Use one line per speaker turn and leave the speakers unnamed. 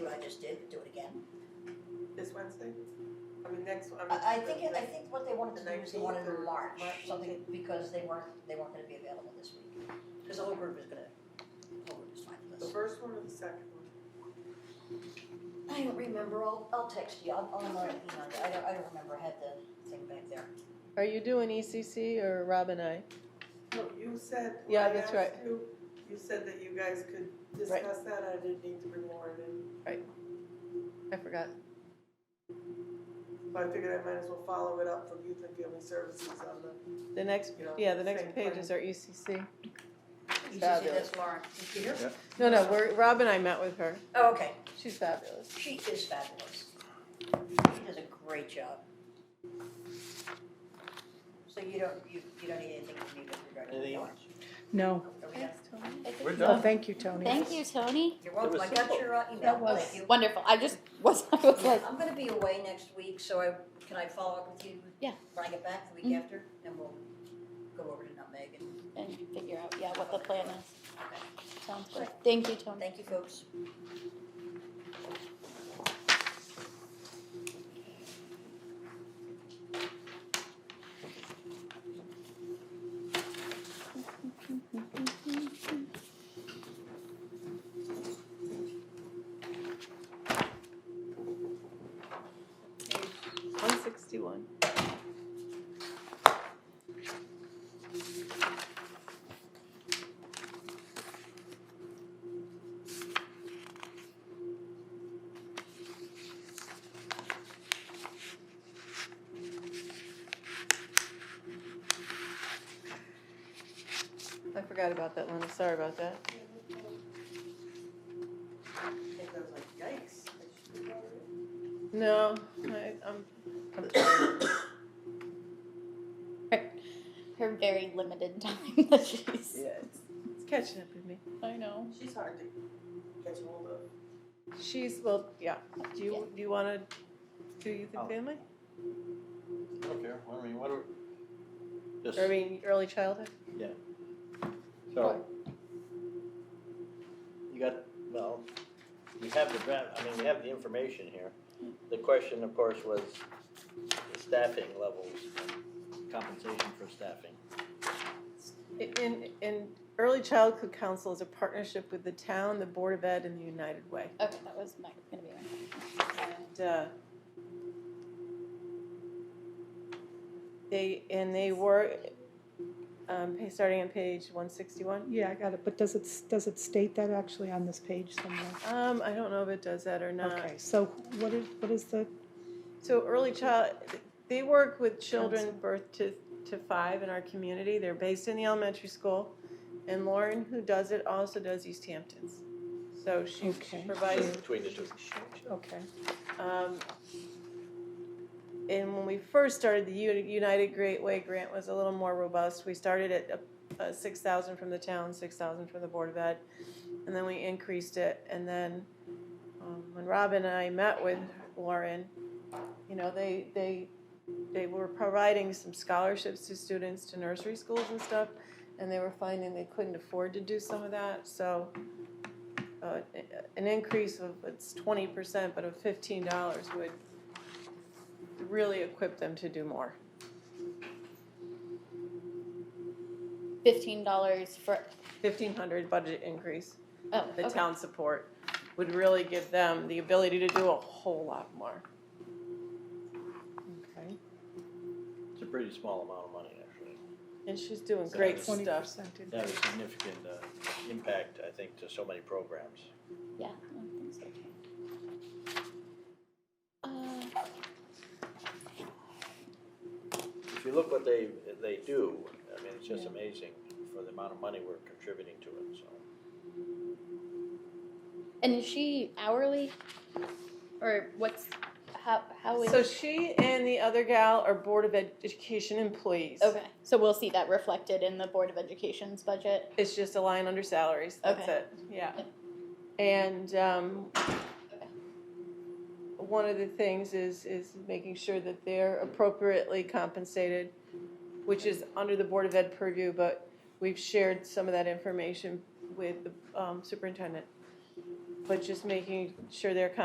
Wednesday? I mean, next, I mean.
I, I think, it-
the-
I think what they wanted to do is they
19th
wanted
or
to March,
March,
something, because they weren't, they weren't gonna be available this week. Because the whole group is gonna, the whole group is fine for
The
this.
first one or the second one?
I don't remember, I'll, I'll text you, I'll, I'll, uh, email you. I don't, I don't remember, I had the thing back there.
Are you doing ECC or Rob and I?
No, you said, when
Yeah,
I
that's
asked you, you said that you guys could discuss that, I didn't need to bring Warren in.
I forgot.
But I figured I might as well follow it up from Youth and Family Services on the,
The next,
You know,
yeah, the
same
next
plan.
pages are E ECC.
You should see
Fabulous.
this, Lauren. You see her?
No, no, we're, Rob and I met with her.
Oh, okay,
She's fabulous.
she is fabulous. She does a great job. So you don't, you, you don't need anything from me with regard to
Anything
the
else?
No.
Are we done?
We're
Oh,
done.
thank you, Tony.
Thank you, Tony.
You're
That
welcome,
was
I got
simple.
your uh, email,
That was-
thank you.
Wonderful. I just was, I was like,
Yeah, I'm gonna be away next week, so I, can I follow up with you?
Yeah.
When I get back the week
Mhm.
after, and we'll go over to Nutmeg and,
and figure out, yeah, what the plan is.
okay.
Sounds good. Thank you, Tony.
Thank you, folks.
One sixty-one. I forgot about that, Linda. Sorry about that.
I think I was like, yikes. I should have brought her in.
No, I, um, I'm, I'm tired.
Her very limited time that she's.
Yeah, it's, it's catching up with me.
I know.
She's hard to catch hold of.
She's well, yeah. Do you do you want to do youth and
Oh.
family?
I don't care. I mean, what are, just,
Or I mean, early childhood.
so. You got, well, you have the draft, I mean, we have the information here. The question, of course, was the staffing levels, and compensation for staffing.
In in early childhood council is a partnership with the town, the board of ed, and the United Way.
Okay, that was my, gonna be my.
And uh, they and they were um, pa- starting on page one sixty one.
Yeah, I got it, but does it, does it state that actually on this page somewhere?
Um, I don't know if it does that or not.
Okay, so what is, what is the,
So early child, they work with children
Counsel.
birth to, to five in our community. They're based in the elementary school. And Lauren, who does it, also does East Hamptons. So she
Okay.
provides,
Between the two.
okay,
um, and when we first started, the Uni- United Great Way grant was a little more robust. We started at uh, uh, six thousand from the town, six thousand from the Board of Ed. And then we increased it. And then um, when Robin and I met with Lauren, you know, they they they were providing some scholarships to students to nursery schools and stuff, and they were finding they couldn't afford to do some of that. So uh, an increase of it's twenty percent, but of fifteen dollars would really equip them to do more.
Fifteen dollars for,
Fifteen hundred budget increase,
oh,
the
okay.
town support would really give them the ability to do a whole lot more.
okay.
It's a pretty small amount of money, actually.
And she's doing
So
great
that's
Twenty
stuff.
percent
It had a significant uh, impact, I think, to so many programs.
Yeah, I think so too. Uh,
If you look what they, they do, I mean, it's just
Yeah.
amazing for the amount of money we're contributing to it, so.
and is she hourly? Or what's, how, how is?
So she and the other gal are Board of Education employees.
Okay, so we'll see that reflected in the Board of Education's budget.
It's just a line under salaries. That's
Okay.
it. Yeah. And um, one of the things is is making sure that they're appropriately compensated, which is under the Board of Ed purview. But we've shared some of that information with the um, superintendent. But just making sure they're